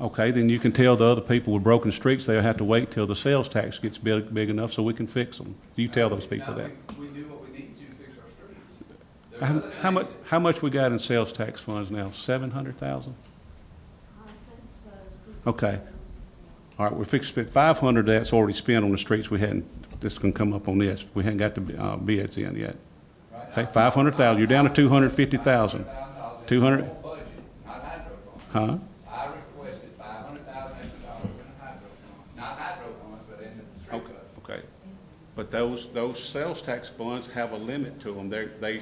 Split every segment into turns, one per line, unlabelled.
Okay, then you can tell the other people with broken streets, they'll have to wait till the sales tax gets big, big enough so we can fix them. You tell those people that.
We we do what we need to to fix our streets. There's
How,
other
how much,
things
how much we got in sales tax funds now? Seven hundred thousand?
I think so. six or
Okay.
seven.
All right, we're fixing to spend five hundred of that's already spent on the streets. We hadn't, this can come up on this. We hadn't got the, uh, bids in yet.
that- right
Okay,
now,
five hundred thousand, you're down to two hundred fifty thousand,
$500,000
Two hundred-
in the whole budget, Not hydro fund.
huh?
I requested five hundred thousand extra dollars in the hydro fund, not hydro funds, but in the street
Okay,
budget.
okay. But those, those sales tax funds have a limit to them. They're, they,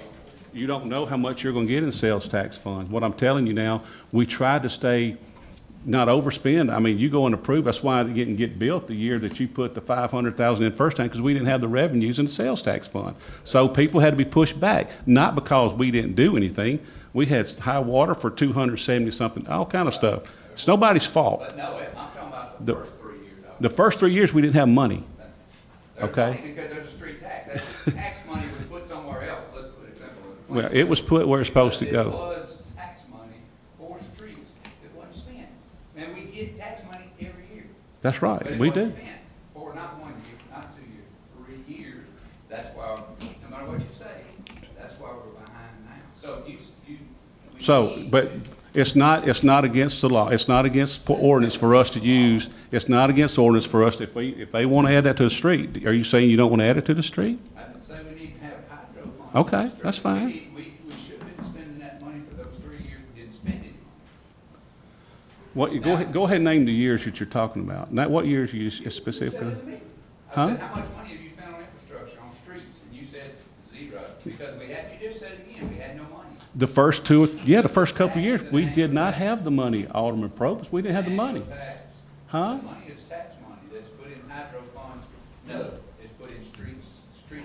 you don't know how much you're gonna get in sales tax funds. What I'm telling you now, we tried to stay, not overspend. I mean, you go and approve, that's why it didn't get built the year that you put the five hundred thousand in first time, because we didn't have the revenues in the sales tax fund. So people had to be pushed back, not because we didn't do anything. We had high water for two hundred seventy-something, all kind of stuff. It's nobody's fault.
But no, I'm talking about
The-
the first three years. of it.
The first three years, we didn't have money.
There's
okay.
money Because there's a street tax, that's tax money we put somewhere else, let's put it simple. and plain.
Well, it was put where it's supposed to
It
go.
was tax money for streets that wasn't spent. And we get tax money every year.
That's
but
right,
it
we do.
wasn't spent For not one year, not two years, three years. That's why, no matter what you say, that's why we're behind now. So you, you. we
So,
need
but
to-
it's not, it's not against the law, it's not against po- ordinance for us to use, it's not against ordinance for us, if we, if they want to add that to the street, are you saying you don't want to add it to the street?
I didn't say we need to have hydro funds. for
Okay,
the streets.
that's fine.
We, need- we, we should have been spending that money for those three years, we didn't spend it.
What, you- go ahead, go ahead and name the years that you're talking about, not what years you s- specifically.
I
Huh?
said, how much money have you spent on infrastructure, on streets? And you said zero, because we had, you just said it again, we had no money.
The first two, or- yeah, the first couple of years, we did not have the money, Alderman Probst, we didn't have the money.
Annual tax.
Huh?
The money is tax money that's put in hydro funds, no, it's put in streets, street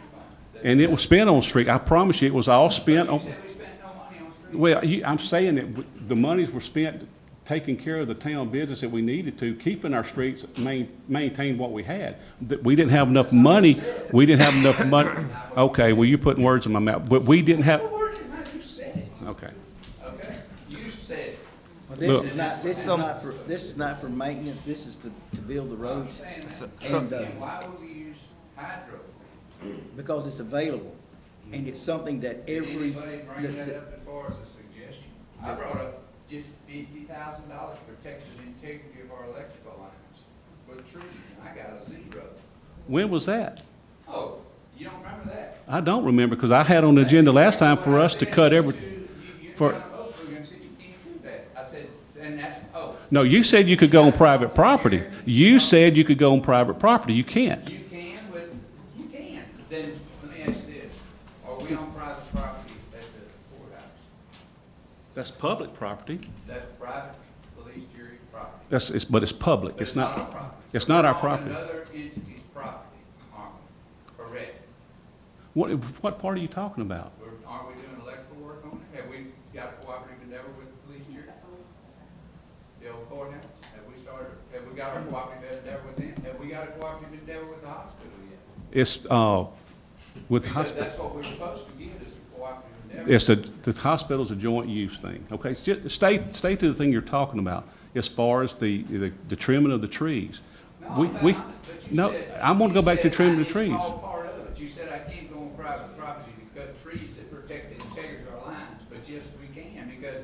funds.
And it was spent on street, I promise you, it was all spent on.
But you said we spent no money on streets.
Well, you, I'm saying that w- the monies were spent taking care of the town business that we needed to, keeping our streets, main, maintain what we had. That we didn't have enough money, we didn't have enough money, okay, well, you're putting words in my mouth, but we didn't have,
What word did I- you said it,
okay.
okay? You said it.
Well,
Look.
this is not, this is not for, this is not for maintenance, this is to, to build the
I'm
roads,
saying that.
so-
And then why would we use hydro?
because it's available. And it's something that
Did
every,
anybody
the-
bring that
the-
up as far as a suggestion? I brought up just fifty thousand dollars protecting the integrity of our electrical lines for trees, and I got a zero.
When was that?
Oh, you don't remember that?
I don't remember, because I had on the agenda last time for us to cut every, for-
You're gonna vote for it and said you can't do that. I said, and that's, oh,
no, you said you could go on private property. You said you could go on private property, you can't.
you can with, you can. Then let me ask you this, are we on private property at the courthouse?
That's public property.
That's private police jury property.
That's, it's, but it's public,
But
it's not,
our property.
it's
So
not
we're
our
on
property.
Another entity's property, aren't we? Correct.
What, what part are you talking about?
We're- Aren't we doing electrical work on it? Have we got a cooperative endeavor with the police here? The old courthouse? Have we started, have we got our cooperative endeavor with them? Have we got a cooperative endeavor with the hospital yet?
It's, uh, with the
Because
hospital,
that's what we're supposed to get is a cooperative endeavor.
it's a, the hospital's a joint use thing, okay? It's ju- Stay, stay to the thing you're talking about, as far as the, the the trimming of the trees.
No,
We,
I'm not,
we,
but you
no,
said-
I'm gonna go
you
back to
said
trimming the
I-
trees.
It's all part of it. You said I can't go on private property to cut trees that protect the integrity of our lines, but yes, we can, because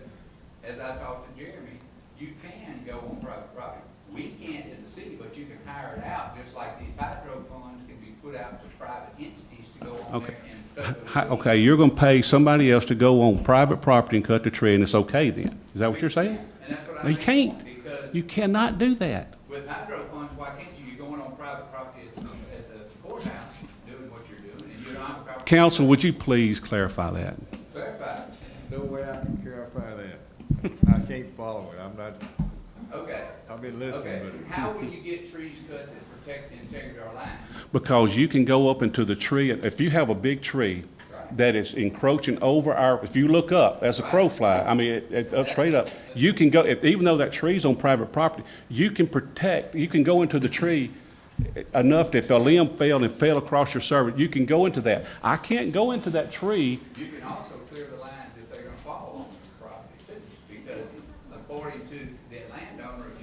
as I talked to Jeremy, you can go on private property. We can't as a city, but you can hire it out, just like these hydro funds can be put out to private entities to go on
Okay.
there and cut those
Hi-
trees.
Okay, you're gonna pay somebody else to go on private property and cut the tree, and it's okay then? Is that what you're saying?
And that's what I
No, you
think,
can't.
Because
You cannot do that.
With hydro funds, why can't you? You're going on private property at, the- at the courthouse, doing what you're doing, and you're on private.
Council, would you please clarify that?
Clarify,
No way I can clarify that. I can't follow it. I'm not,
okay,
I've been
okay.
listening,
How will you get trees cut that protect the integrity of our land?
Because you can go up into the tree, if you have a big tree that is encroaching over our, if you look up as a crow fly, I mean, it, it, up straight up, you can go, if- even though that tree's on private property, you can protect, you can go into the tree enough that if a limb fell and fell across your servant, you can go into that. I can't go into that tree
You can also